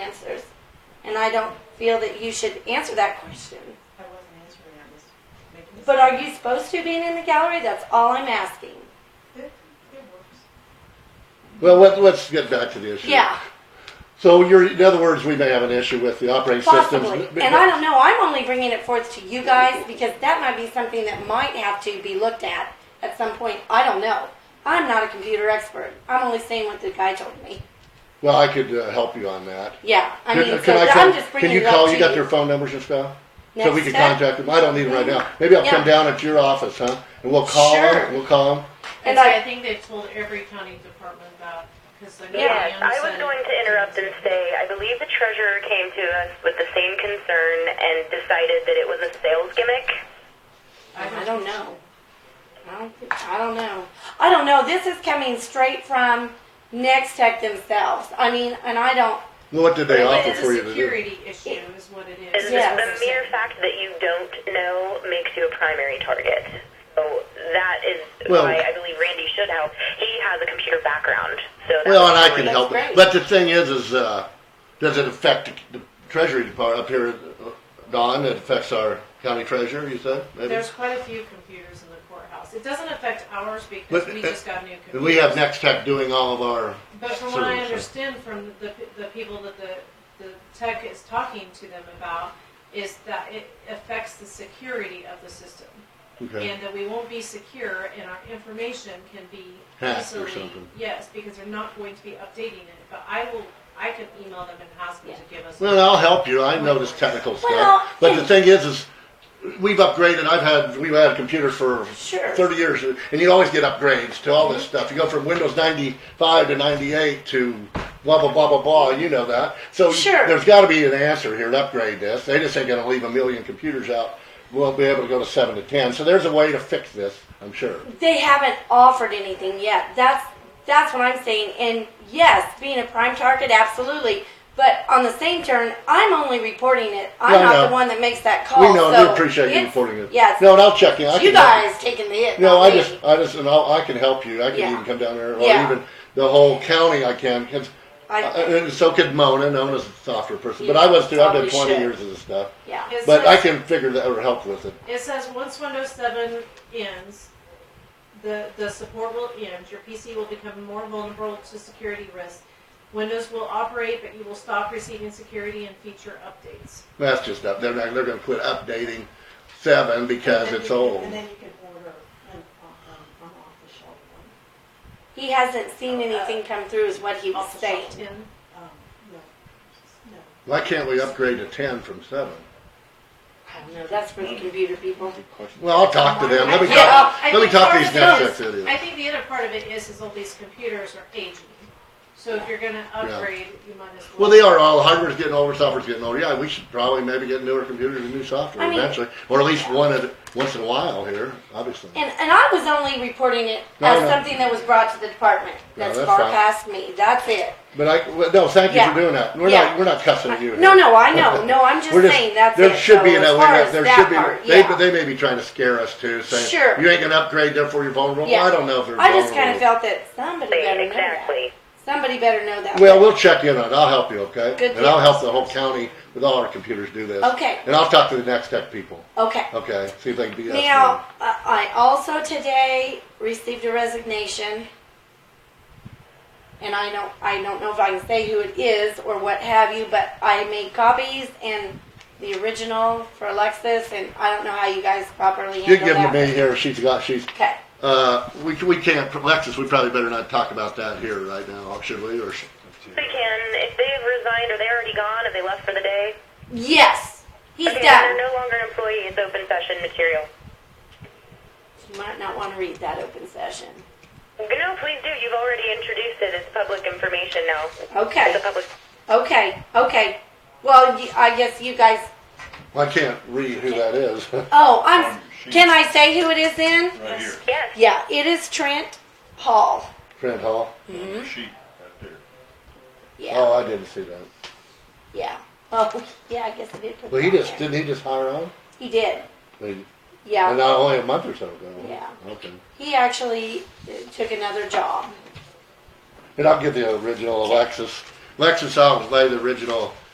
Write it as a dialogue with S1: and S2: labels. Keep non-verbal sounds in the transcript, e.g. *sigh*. S1: I don't feel that you should answer that question.
S2: I wasn't answering, I was making. this-
S1: But are you supposed to being in the gallery? That's all I'm asking.
S2: It, it works.
S3: Well, let, let's get back to the issue.
S1: Yeah,
S3: So you're, in other words, we may have an issue with the operating systems.
S1: possibly. And I don't know. I'm only bringing it forth to you guys because that might be something that might have to be looked at at some point. I don't know. I'm not a computer expert. I'm only saying what the guy told me.
S3: Well, I could uh, help you on that.
S1: Yeah, I
S3: Can-
S1: mean, so
S3: can I
S1: I'm
S3: come-
S1: just bringing
S3: Can
S1: it
S3: you call,
S1: up
S3: you
S1: to
S3: got their phone numbers and stuff? So
S1: Next
S3: we can
S1: step.
S3: contact them. I don't need them right now. Maybe I'll come
S1: Yeah.
S3: down at your office, huh? And we'll call
S1: Sure.
S3: them, we'll call them.
S1: And
S2: And so
S1: I-
S2: I think they've told every county department about, because I know
S4: Yes,
S2: Leanne
S4: I was
S2: said-
S4: going to interrupt and say, I believe the treasurer came to us with the same concern and decided that it was a sales gimmick.
S1: I don't know. I don't, thi- I don't know. I don't know. This is coming straight from Next Tech themselves. I mean, and I don't.
S3: What did they
S2: Well,
S3: offer
S2: It's
S3: for
S2: a
S3: you to do?
S2: security issue is what it
S4: And
S2: is.
S4: the-
S1: Yes.
S4: the mere fact that you don't know makes you a primary target. So that is
S3: Well-
S4: why I believe Randy should help. He has a computer background, so that
S3: Well, and I
S4: was
S3: can
S4: great.
S3: help
S1: great.
S3: it. But the thing is, is, uh, does it affect the treasury department up here, uh, Don? It affects our county treasurer, you said? maybe?
S2: There's quite a few computers in the courthouse. It doesn't affect ours because
S3: But-
S2: we just got new computers.
S3: And we have Next Tech doing all of our,
S2: But from what I
S3: service, so-
S2: understand from the, the people that the, the tech is talking to them about is that it affects the security of the system.
S3: okay.
S2: And that we won't be secure and our information can be
S3: Hacked or
S2: easily-
S3: something.
S2: Yes, because they're not going to be updating it, but I will, I can email them and ask them to give us.
S3: Well, I'll help you. I know this technical
S1: Well,
S3: stuff. But the
S1: and-
S3: thing is, is we've upgraded. I've had, we've had computers for
S1: Sure. Mm-hmm.
S3: 30 years, and you always get upgrades to all this stuff. You go from Windows 95 to 98 to blah, blah, blah, blah, blah. You know that. So
S1: Sure.
S3: there's got to be an answer here to upgrade this. They just ain't going to leave a million computers out. We'll be able to go to 7 to 10. So there's a way to fix this, I'm sure.
S1: They haven't offered anything yet. That's that's what I'm saying. And yes, being a prime target, absolutely. But on the same turn, I'm only reporting it. I'm
S3: Yeah, I
S1: not
S3: know.
S1: the one that makes that call.
S3: we know.
S1: Oh, so
S3: we appreciate you
S1: it's-
S3: reporting it.
S1: Yes.
S3: No, and I'll check in. I
S1: you
S3: can help
S1: guys taking the hit.
S3: No,
S1: not
S3: I
S1: me.
S3: just, uh, I just, and I'll, I can help you. I can
S1: Yeah.
S3: even come down there, or
S1: Yeah.
S3: even the whole county. I can. 'cause-
S1: I-
S3: uh, and so could Mona. Mona's a softer person, but
S1: You
S3: I was too. I've
S1: probably
S3: done 20
S1: should.
S3: years of this stuff,
S1: yeah.
S2: It
S3: but I
S2: says-
S3: can figure that or help with it.
S2: It says once Windows 7 ends, the, the support will end. Your PC will become more vulnerable to security risks. Windows will operate, but you will stop receiving security and feature updates.
S3: That's just up. They're not, they're going to quit updating seven because it's old.
S5: And then you can order an, um, an off-the-shelf one,
S1: He hasn't seen anything come through, is what he was
S2: Off the
S1: saying.
S2: shelf in.
S5: um, no, no.
S3: Why can't we upgrade to 10 from seven?
S1: I don't know. That's for the computer people.
S3: Well, I'll talk to them. Let me
S1: Yeah,
S3: talk.
S2: I
S3: Let me
S2: think
S3: talk to
S2: part
S3: these
S2: of it
S3: next
S2: is-
S3: tech idiots.
S2: I think the other part of it is, is all these computers are aging. So if you're going to upgrade, you might as well.
S3: Well, they are all hardware's getting older, software's getting older. Yeah, we should probably maybe get newer computers and new software
S1: I mean-
S3: eventually, or at least one at, once in a while here, obviously.
S1: And, and I was only reporting it
S3: No,
S1: as
S3: no.
S1: something that was brought to the department.
S3: No,
S1: That's
S3: that's
S1: far
S3: fine.
S1: past me. That's it.
S3: But I well, no, thank you
S1: Yeah.
S3: for doing that. We're
S1: Yeah.
S3: not we're not cussing at you.
S1: No,
S3: here.
S1: no, I know. No, I'm just,
S3: We're just
S1: saying that's
S3: there
S1: it.
S3: should be
S1: So
S3: an
S1: as
S3: way.
S1: far as
S3: There
S1: that
S3: should be.
S1: part,
S3: they
S1: yeah.
S3: they may be trying to scare us too, saying
S1: Sure.
S3: you ain't gonna upgrade, therefore you're vulnerable.
S1: Yeah.
S3: I don't know if they're
S1: I just
S3: vulnerable.
S1: kind of felt that somebody better know
S4: Exactly.
S1: that. Somebody better know that.
S3: Well, we'll check in on it. I'll help you, okay?
S1: Good
S3: and I'll
S1: deal.
S3: help the whole county with all our computers do this.
S1: Okay.
S3: And I'll talk to the next tech people.
S1: okay.
S3: Okay. See if they can be
S1: Now, uh, I also today received a resignation, and I don't, I don't know if I can say who it is or what have you, but I made copies and the original for Alexis, and I don't know how you guys properly
S3: You
S1: handle
S3: can give them
S1: that.
S3: to me here. She's got she's
S1: Okay,
S3: uh we we can't Lexus, we probably better not talk about that here right now, should we? Or
S4: They can, if they've resigned or they're already gone, if they left for the day,
S1: yes, he's
S4: okay,
S1: done.
S4: then they're no longer an employee. It's open session material.
S1: You might not want to read that open session.
S4: No, please do. You've already introduced it. It's public information now.
S1: Okay,
S4: It's a public.
S1: okay, okay. Well, you- I guess you guys.
S3: I can't read who that is. *laughs*
S1: Oh, I'm.
S3: Um,
S1: Can I say who it is then?
S6: Right here,
S4: Yes.
S1: Yeah, it is Trent Hall.
S3: Trent Hall.
S6: the sheet, right there.
S1: Yeah.
S3: Oh, I didn't see that.
S1: Yeah. Oh, *laughs* yeah, I guess I did put
S3: Well, he
S1: that
S3: just
S1: there.
S3: didn't he just hire on?
S1: He did.
S3: And
S1: Yeah.
S3: not only a month or so ago.
S1: Yeah.
S3: Okay.
S1: He actually uh, took another job.
S3: And I'll give the original Alexis. Alexis, I'll lay the original